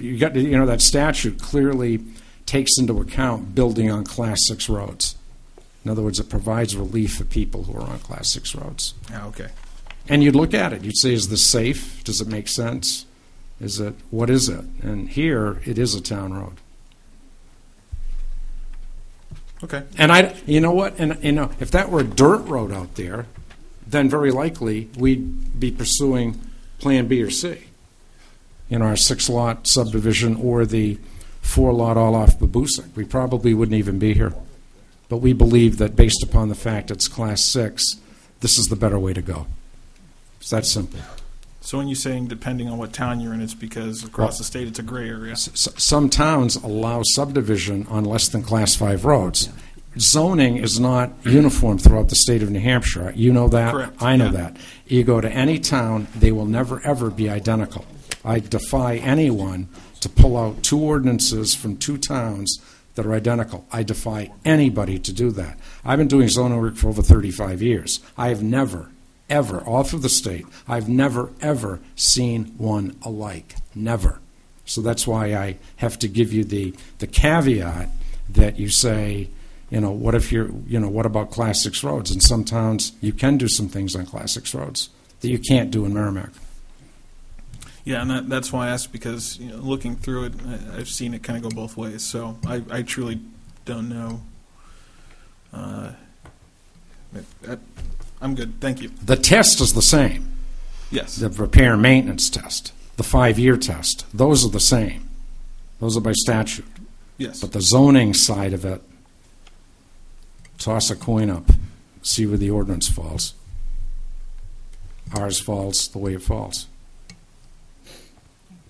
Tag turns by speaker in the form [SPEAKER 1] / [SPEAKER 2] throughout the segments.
[SPEAKER 1] you got, to- you know, that statute clearly takes into account building on Class 6 roads. In other words, it provides relief for people who are on Class 6 roads.
[SPEAKER 2] Ah, okay.
[SPEAKER 1] And you'd look at it, you'd say, is this safe? Does it make sense? Is it, what is it? And here, it is a town road.
[SPEAKER 2] Okay.
[SPEAKER 1] And I, you know what? And you know, if that were a dirt road out there, then very likely we'd be pursuing Plan B or C. You know, our six-lot subdivision or the four-lot all-off Babusik. We probably wouldn't even be here. But we believe that based upon the fact it's Class Six, this is the better way to go. It's that simple.
[SPEAKER 2] So when you're saying depending on what town you're in, it's because across the state it's a gray area.
[SPEAKER 1] S- s- some towns allow subdivision on less than Class Five roads. Zoning is not uniform throughout the state of New Hampshire. You know that.
[SPEAKER 2] Correct,
[SPEAKER 1] I know
[SPEAKER 2] yeah.
[SPEAKER 1] that. You go to any town, they will never, ever be identical. I defy anyone to pull out two ordinances from two towns that are identical. I defy anybody to do that. I've been doing zoning work for over 35 years. I have never, ever, all through the state, I've never, ever seen one alike. Never. So that's why I have to give you the, the caveat that you say, you know, what if you're, you know, what about Class 6 roads? In some towns, you can do some things on Class 6 roads that you can't do in Merrimack.
[SPEAKER 2] Yeah, and that, that's why I asked because you know, looking through it, I, I've seen it kind of go both ways. So I, I truly don't know. Uh, I- I, I'm good. Thank you.
[SPEAKER 1] The test is the same,
[SPEAKER 2] Yes.
[SPEAKER 1] the repair and maintenance test, the five-year test. Those are the same. Those are by statute.
[SPEAKER 2] Yes.
[SPEAKER 1] But the zoning side of it, toss a coin up, see where the ordinance falls. Ours falls the way it falls,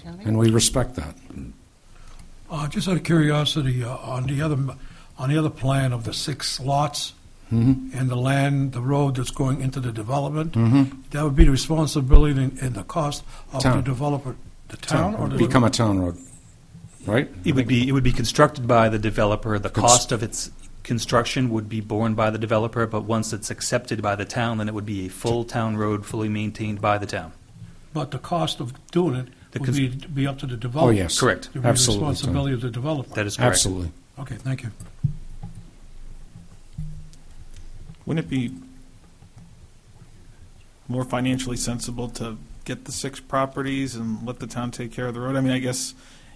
[SPEAKER 1] and we respect that.
[SPEAKER 3] Uh, Just out of curiosity, uh, on the other, on the other plan of the six lots
[SPEAKER 1] Mm-hmm.
[SPEAKER 3] and the land, the road that's going into the development, that would be the responsibility and and the cost of the
[SPEAKER 1] Mm-hmm. Town.
[SPEAKER 3] developer, the town or the...
[SPEAKER 1] Become a town road, right?
[SPEAKER 4] It would be, it would be constructed by the developer. The cost of its construction would be borne by the developer, but once it's accepted by the town, then it would be a full town road, fully maintained by the town.
[SPEAKER 3] But the cost of doing
[SPEAKER 4] The
[SPEAKER 3] it would
[SPEAKER 4] cons-
[SPEAKER 3] be, be up to the developer.
[SPEAKER 1] Oh, yes. Correct.
[SPEAKER 3] It would be the
[SPEAKER 1] Absolutely, Tom.
[SPEAKER 3] responsibility of the developer.
[SPEAKER 4] That is correct.
[SPEAKER 1] Absolutely.
[SPEAKER 3] Okay, thank you.
[SPEAKER 2] Wouldn't it be more financially sensible to get the six properties and let the town take care of the road? I mean, I guess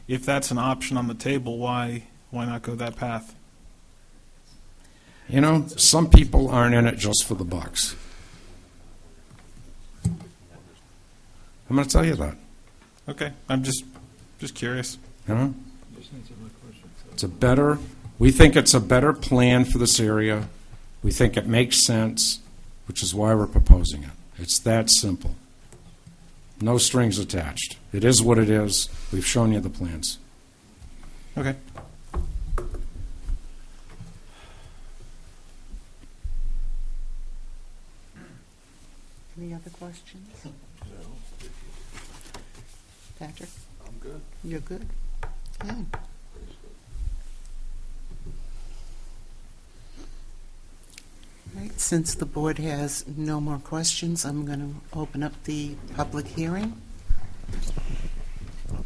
[SPEAKER 2] if that's an option on the table, why why not go that path?
[SPEAKER 1] You know, some people aren't in it just for the bucks. I'm going to tell you that.
[SPEAKER 2] Okay, I'm just just curious.
[SPEAKER 1] You know? It's a better, we think it's a better plan for this area. We think it makes sense, which is why we're proposing it. It's that simple. No strings attached. It is what it is. We've shown you the plans.
[SPEAKER 2] Okay.
[SPEAKER 5] Any other questions? No. Patrick? I'm good. You're good? Good. Right, since the board has no more questions, I'm going to open up the public hearing.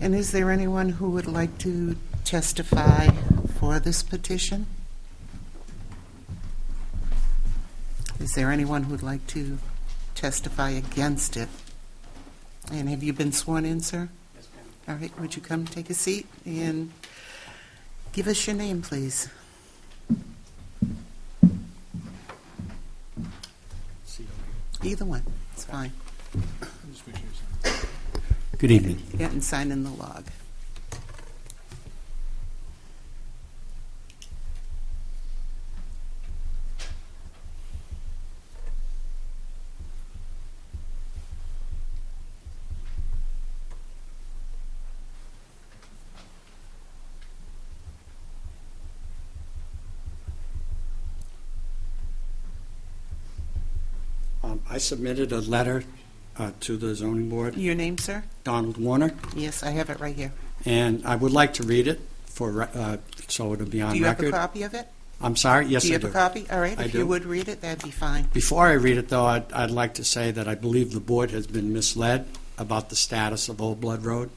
[SPEAKER 5] And is there anyone who would like to testify for this petition? Is there anyone who'd like to testify against it. And have you been sworn in, sir? Yes, ma'am. All right, would you come take a seat and give us your name, please? Either one, it's fine.
[SPEAKER 6] Good evening.
[SPEAKER 5] Yeah, and sign in the log.
[SPEAKER 6] Um, I submitted a letter uh, to the zoning board,
[SPEAKER 5] Your name, sir?
[SPEAKER 6] Donald Warner,
[SPEAKER 5] Yes, I have it right here.
[SPEAKER 6] and I would like to read it for, re- uh, so it'll be on
[SPEAKER 5] Do you have a
[SPEAKER 6] record.
[SPEAKER 5] copy of it?
[SPEAKER 6] I'm sorry, yes,
[SPEAKER 5] Do you
[SPEAKER 6] I
[SPEAKER 5] have a
[SPEAKER 6] do.
[SPEAKER 5] copy? All right,
[SPEAKER 6] I
[SPEAKER 5] if you
[SPEAKER 6] do.
[SPEAKER 5] would read it, that'd be fine.
[SPEAKER 6] Before I read it, though, I'd I'd like to say that I believe the board has been misled about the status of Old Blood Road.